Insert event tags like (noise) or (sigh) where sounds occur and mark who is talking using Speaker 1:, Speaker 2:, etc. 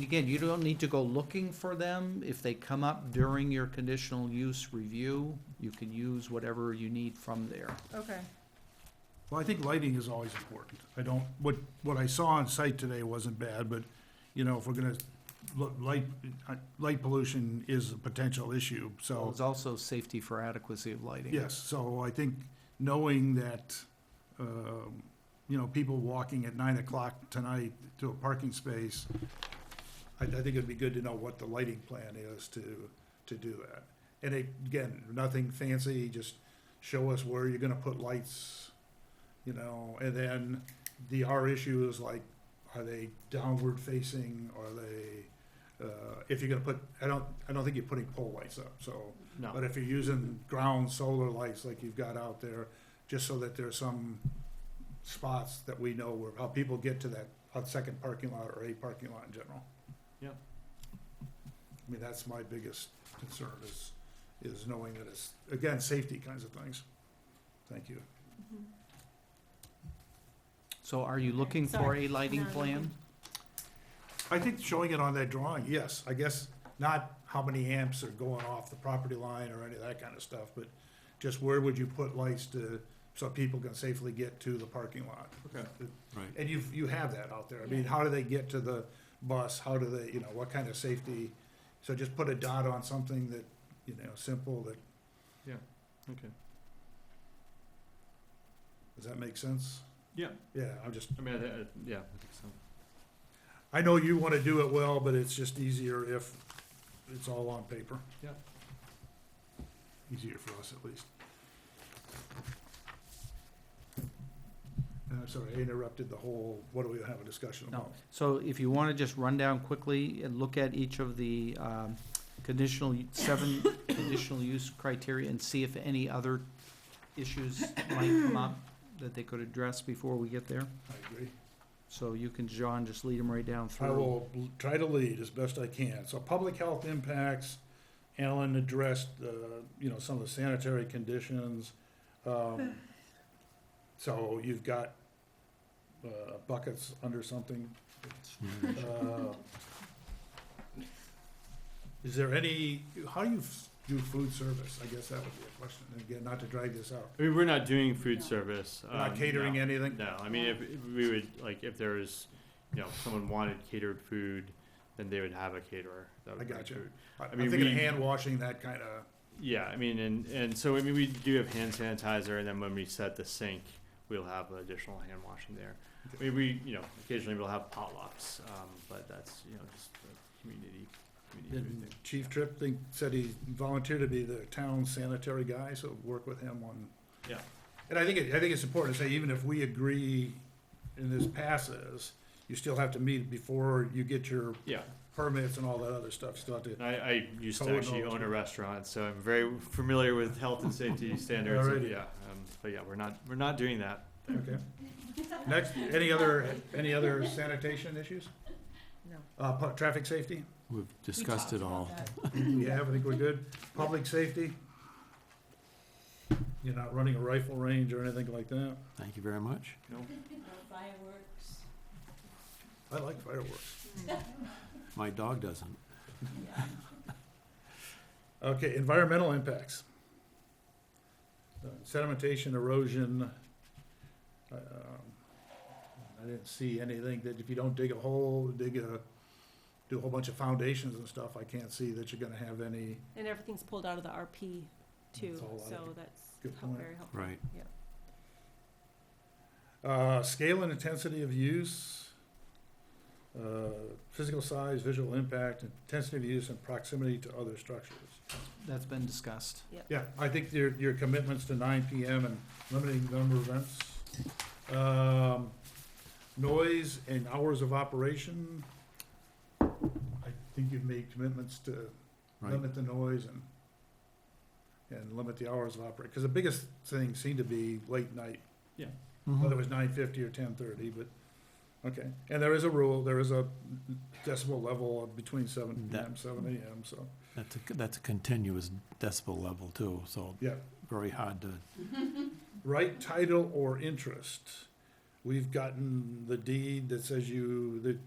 Speaker 1: again, you don't need to go looking for them. If they come up during your conditional use review, you can use whatever you need from there.
Speaker 2: Okay,
Speaker 3: Well, I think lighting is always important. I don't, what, what I saw on site today wasn't bad, but, you know, if we're gonna, look, light, uh, light pollution is a potential issue,
Speaker 1: Well,
Speaker 3: so,
Speaker 1: It's also safety for adequacy of lighting.
Speaker 3: yes, so I think knowing that, um, you know, people walking at nine o'clock tonight to a parking space, I, I think it'd be good to know what the lighting plan is to, to do that. And again, nothing fancy, just show us where you're gonna put lights, you know, and then the, our issue is like, are they downward facing, are they, uh, if you're gonna put, I don't, I don't think you're putting pole lights up, so.
Speaker 1: No.
Speaker 3: But if you're using ground solar lights like you've got out there, just so that there's some spots that we know where, how people get to that, uh, second parking lot or a parking lot in general.
Speaker 1: Yeah.
Speaker 3: I mean, that's my biggest concern is, is knowing that it's, again, safety kinds of things. Thank you.
Speaker 1: So are you looking for a lighting
Speaker 2: No, no.
Speaker 1: plan?
Speaker 3: I think showing it on that drawing, yes, I guess not how many amps are going off the property line or any of that kind of stuff, but just where would you put lights to, so people can safely get to the parking lot?
Speaker 4: Okay. Right.
Speaker 3: And you've, you have that out there, I mean, how do they get to the bus, how do they, you know, what kind of safety? So just put a dot on something that, you know, simple, that,
Speaker 4: Okay.
Speaker 3: does that make sense?
Speaker 4: Yeah.
Speaker 3: Yeah, I'm just,
Speaker 4: I mean, I, I, yeah, I think so.
Speaker 3: I know you wanna do it well, but it's just easier if it's all on paper.
Speaker 4: Yeah.
Speaker 3: Easier for us at least. And I'm Uh, sorry, I interrupted the whole, what do we have a discussion
Speaker 1: No.
Speaker 3: about?
Speaker 1: So if you want to just run down quickly and look at each of the um, conditional, u-
Speaker 2: (laughs)
Speaker 1: seven conditional use criteria and see if any other issues might come up that they could address before we get there.
Speaker 3: I agree.
Speaker 1: So you can, John, just lead them right down through.
Speaker 3: I will l- try to lead as best I can. So public health impacts, Alan addressed, uh, you know, some of the sanitary conditions. Um, So you've got, uh, buckets under something. Uh, Is there any, how do you f- do food service? I guess that would be a question. And Again, not to drag this out.
Speaker 4: I mean, we're not doing food
Speaker 2: No.
Speaker 4: service.
Speaker 3: We're Not
Speaker 4: um,
Speaker 3: catering
Speaker 4: no.
Speaker 3: anything?
Speaker 4: No, I mean, if, if we would, like, if there was, you know, someone wanted catered food, then they would have a caterer. That would
Speaker 3: I
Speaker 4: bring
Speaker 3: gotcha.
Speaker 4: food.
Speaker 3: I- I'm
Speaker 4: mean,
Speaker 3: thinking
Speaker 4: we-
Speaker 3: hand washing, that kind of,
Speaker 4: Yeah, I mean, and, and so, I mean, we do have hand sanitizer, and then when we set the sink, we'll have additional hand washing there. I mean, we, you know, occasionally we'll have potlucks, um, but that's, you know, just a community, community food
Speaker 3: And
Speaker 4: thing.
Speaker 3: Chief Tripp think, said he volunteered to be the town sanitary guy, so work with him on.
Speaker 4: Yeah.
Speaker 3: And I think, it- I think it's important to say, even if we agree and this passes, you still have to meet before you get your
Speaker 4: Yeah,
Speaker 3: permits and all that other stuff, still have to.
Speaker 4: And I, I used to
Speaker 3: Code
Speaker 4: actually
Speaker 3: knowledge.
Speaker 4: own a restaurant, so I'm very familiar with health and
Speaker 3: (laughs)
Speaker 4: safety standards. and
Speaker 3: Alrighty.
Speaker 4: Yeah, um, but yeah, we're not, we're not doing that.
Speaker 3: Okay. Next, any other, any other sanitation issues?
Speaker 2: no.
Speaker 3: Uh, pu- traffic safety?
Speaker 5: We've discussed it all.
Speaker 3: Yeah, I think we're good. Public safety? You're not running a rifle range or anything like that?
Speaker 5: Thank you very much.
Speaker 4: No,
Speaker 2: Fireworks.
Speaker 3: I like fireworks.
Speaker 5: My dog doesn't.
Speaker 3: Okay, environmental impacts. Uh, Sedimentation, erosion. um, I didn't see anything that if you don't dig a hole, dig a, do a whole bunch of foundations and stuff, I can't see that you're gonna have any.
Speaker 2: And everything's pulled out of the RP too,
Speaker 3: That's all I-
Speaker 2: so that's
Speaker 3: Good
Speaker 2: hel-
Speaker 3: point.
Speaker 2: very helpful.
Speaker 5: Right.
Speaker 3: Uh, Scale and intensity of use. uh, Physical size, visual impact, intensity of use and proximity to other structures.
Speaker 1: That's been discussed.
Speaker 3: Yeah, I think your, your commitments to nine PM and limiting the number of events. Um, noise and hours of operation. I think you've made commitments to
Speaker 5: Right.
Speaker 3: limit the noise and, and limit the hours of operation. Cause the biggest thing seemed to be late night, whether it
Speaker 5: Mhm.
Speaker 3: was nine fifty or ten thirty, but, okay. And there is a rule, there is a decibel level of between seven PM,
Speaker 5: That-
Speaker 3: seven AM, so,
Speaker 5: That's a, that's a continuous decibel level too, so
Speaker 3: yeah.
Speaker 5: very hard to,
Speaker 3: right title or interest. We've gotten the deed that says you, the